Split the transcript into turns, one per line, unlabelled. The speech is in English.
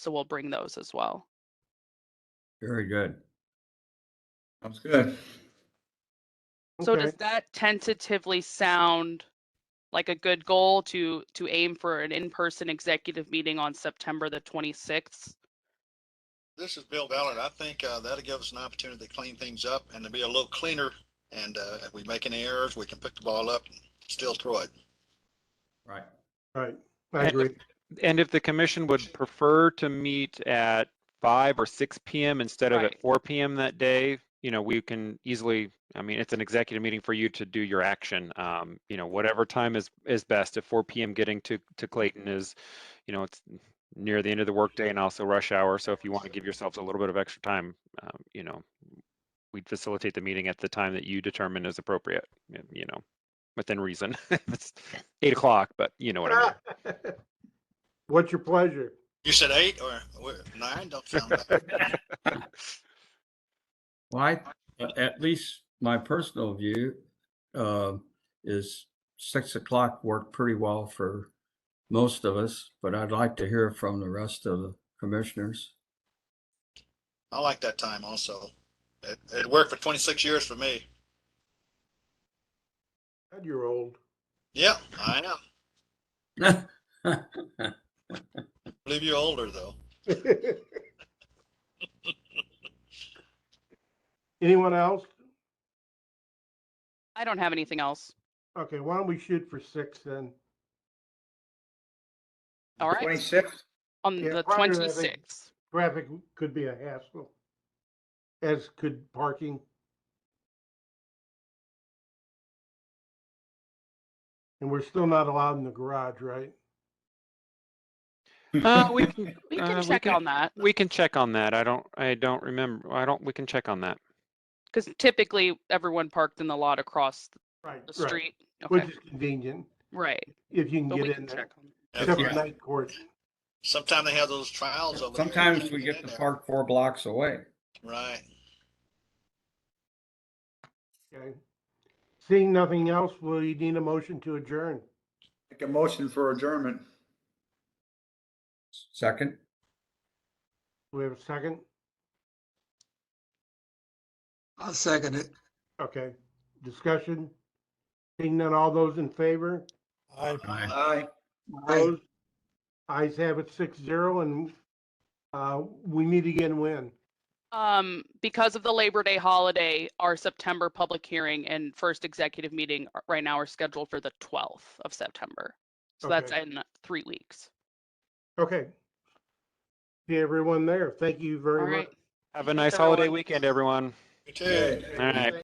So we'll bring those as well.
Very good.
Sounds good.
So
Okay.
does that tentatively sound like a good goal to to aim for an in-person executive meeting on September the 26th?
This is Bill Ballard. I think uh, that'll give us an opportunity to clean things up and to be a little cleaner. And uh, if we make any errors, we can pick the ball up and still throw it.
Right.
Right, I
And-
agree.
And if the commission would prefer to meet at five or six PM instead of
Right.
at four PM that day, you know, we can easily, I mean, it's an executive meeting for you to do your action. Um, you know, whatever time is, is best. If four PM getting to, to Clayton is, you know, it's near the end of the workday and also rush hour. So if you want to give yourselves a little bit of extra time, um, you know, we facilitate the meeting at the time that you determine is appropriate, y- you know, within reason. It's eight o'clock, but you know what I mean.
What's your pleasure?
You said eight or or nine? Don't sound bad.
Well, I, a- at least my personal view uh, is six o'clock worked pretty well for most of us, but I'd like to hear from the rest of the commissioners.
I like that time also. It, it worked for 26 years for me.
God, You're old.
Yeah, I am. believe you're older though.
Anyone else?
I don't have anything else.
Okay, why don't we shoot for six then?
All right,
Twenty-sixth?
on
Yeah,
the
prior to that, I think-
26th.
Traffic could be a hassle, as could parking. And we're still not allowed in the garage, right?
Uh, we can,
We
uh,
can check on that
We can check on that. I don't, I don't remember. I don't, we can check on that.
because typically everyone parked in the lot across
Right.
the street.
Which
Okay,
is convenient,
right.
if you can
But we
get
can
in there,
check on that.
except for
Yeah.
night court.
Sometimes they have those trials over there. You
Sometimes
can't
we get
in
the
there.
park four blocks away.
Right.
Okay. Seeing nothing else, we need a motion to adjourn.
Make a motion for adjournment.
Second,
Do we have a second?
I'll second it.
Okay, discussion? Seeing none, all those in favor?
Aye.
Aye.
Aye.
Opposed? Ayes have it six zero and uh, we meet again when?
Um, because of the Labor Day holiday, our September public hearing and first executive meeting are- right now are scheduled for the 12th of September. So that's
Okay.
in three weeks.
Okay. See everyone there. Thank you
All
very much.
right.
Have a
Thanks,
nice holiday
everyone.
weekend, everyone.
You
Good.
All right.